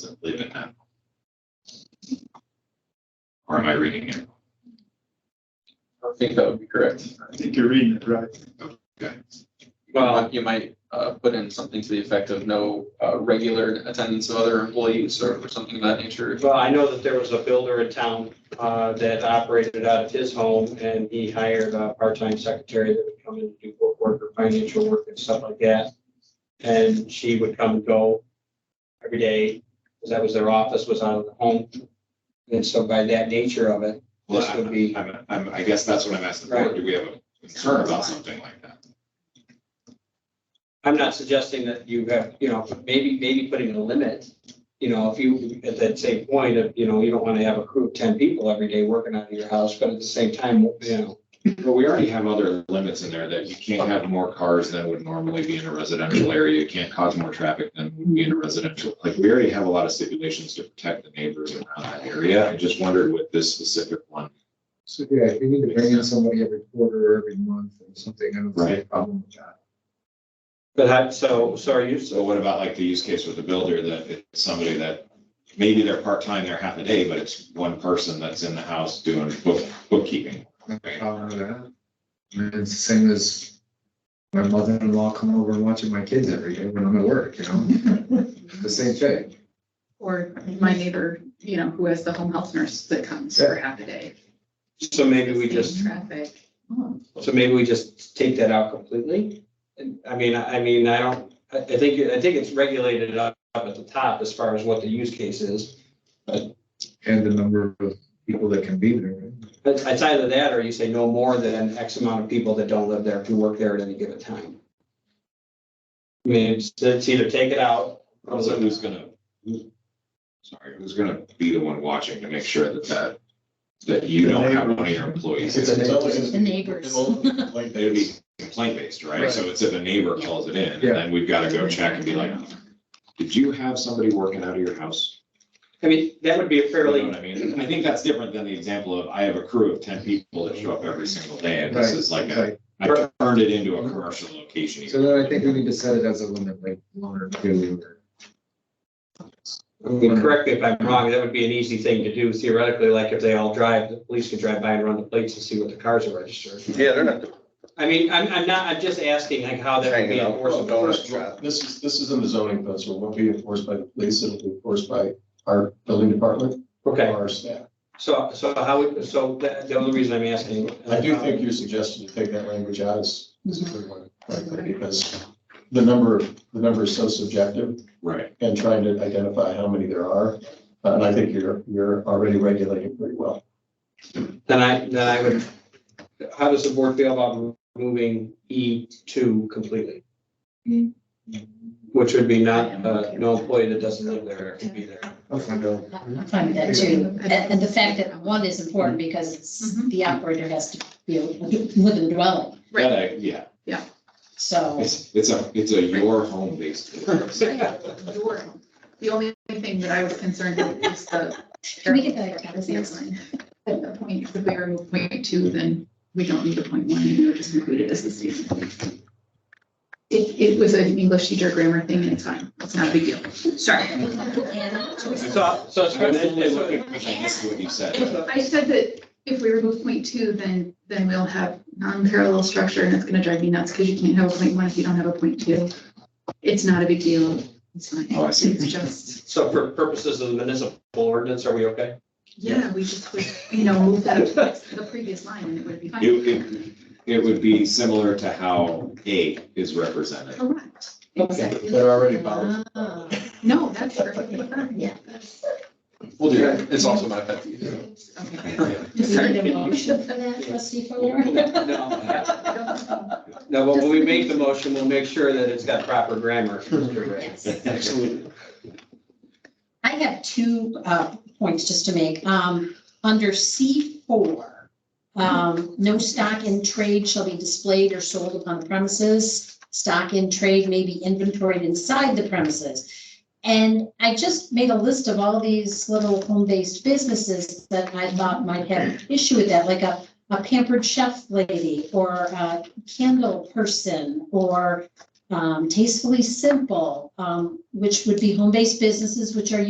simply the tenth. Or am I reading it? I think that would be correct. I think you're reading it right. Okay. Well, you might uh, put in something to the effect of no uh, regular attendance of other employees or something of that nature. Well, I know that there was a builder in town uh, that operated out of his home and he hired a part-time secretary that would come in and do book work or financial work and stuff like that. And she would come and go every day because that was their office was out of the home. And so by that nature of it, Well, this would be, I'm, I'm, I guess that's what I'm asking for. Do we have a concern about something like that? I'm not suggesting that you have, you know, maybe, maybe putting a limit. You know, if you, at that same point of, you know, you don't want to have a crew of ten people every day working out of your house, but at the same time, you know, Well, we already have other limits in there that you can't have more cars than would normally be in a residential area. You can't cause more traffic than would be in a residential. Like, we already have a lot of stipulations to protect the neighbors around that area. I just wondered with this specific one. So, yeah, if you need to bring in somebody every quarter or every month or something, I don't see a Right. problem with that. But I, so, so are you, So what about like the use case with the builder that it's somebody that maybe they're part-time, they're half a day, but it's one person that's in the house doing book, bookkeeping. No problem with that. I mean, it's the same as my mother-in-law coming over and watching my kids every day when I'm at work, you know? The same thing. Or my neighbor, you know, who has the home health nurse that comes for half a day. so maybe we just, Traffic. so maybe we just take that out completely? And, I mean, I I mean, I don't, I, I think, I think it's regulated up up at the top as far as what the use case is. And the number of people that can be there. But it's either that or you say no more than X amount of people that don't live there, who work there at any given time. I mean, it's, it's either take it out. or Also, who's gonna, who- sorry, who's gonna be the one watching to make sure that that, that you don't have one of your employees. It's always- The neighbors. Like They would this. be complaint based, right? So it's if a neighbor calls it in, and Yeah. then we've gotta go check and be like, did you have somebody working out of your house? I mean, that would be a You know fairly, what I mean? I think that's different than the example of I have a crew of ten people that show up every single day, and this Right, is like a, Right. I turned it into a commercial location. So then I think we need to set it as a limit, like one or two. or- I Mm-hmm. mean, correct me if I'm wrong, that would be an easy thing to do theoretically, like if they all drive, the police could drive by and run the plates and see what the cars are registered. Yeah, they're not I mean, I'm, I'm not, I'm just asking like how that would be hanging out with enforceable. a donut shop. This is, this is in the zoning code, so it won't be enforced by the police, it'll be enforced by our building department, or Okay, our staff. so, so how, would- so that, the only reason I'm asking. I do think your suggestion to take that language out is, is a good one, frankly, because the number, the number is so subjective Right. and trying to identify how many there are. Uh, And I think you're, you're already regulating pretty well. Then I, then I would, how does the board feel about removing E two completely? Hmm. Which would be not, uh, no employee that doesn't live there could be there. I'll find out. I'm fine with that too. And, and the fact that one is important because it's, Mm-hmm. the operator has to be with the dwelling, That, Right. I- yeah, so. it's, it's a, it's a your home based. Your- The only thing that I was concerned with is the. Can we get that? Business line. At the point, if we remove point two, then we don't need a point one, and we're just included as a student. It, it was an English teacher grammar thing, and it's fine. It's not a big deal. Sorry. So, so it's. I was only looking because I missed what you said. I said that if we remove point two, then, then we'll have non-parallel structure and it's gonna drive me nuts because you can't have a point one if you don't have a point two. It's not a big deal. It's fine. Oh, I see. It's just, So for purposes of the municipal ordinance, are we okay? yeah, we just would, you know, move that up to next- the previous line and it would be It, fine. it, it would be similar to how A is represented. Correct. Exactly. They're already bound. Ah. No, that's perfectly fine. Yeah. That's- We'll do that. It's also my pet peeve. Okay. Do you need a motion for that, trustee Fuller? No, no, but when we make the motion, we'll make sure that it's got proper grammar. Mr. Ray. Yes. Absolutely. I have two uh, points just to make. Um, Under C4, um, no stock in trade shall be displayed or sold upon the premises. Stock in trade may be inventoried inside the premises. And I just made a list of all these little home-based businesses that I thought might have an issue with that, like a a pampered chef lady or a candle person or um, tastefully simple, um, which would be home-based businesses, which are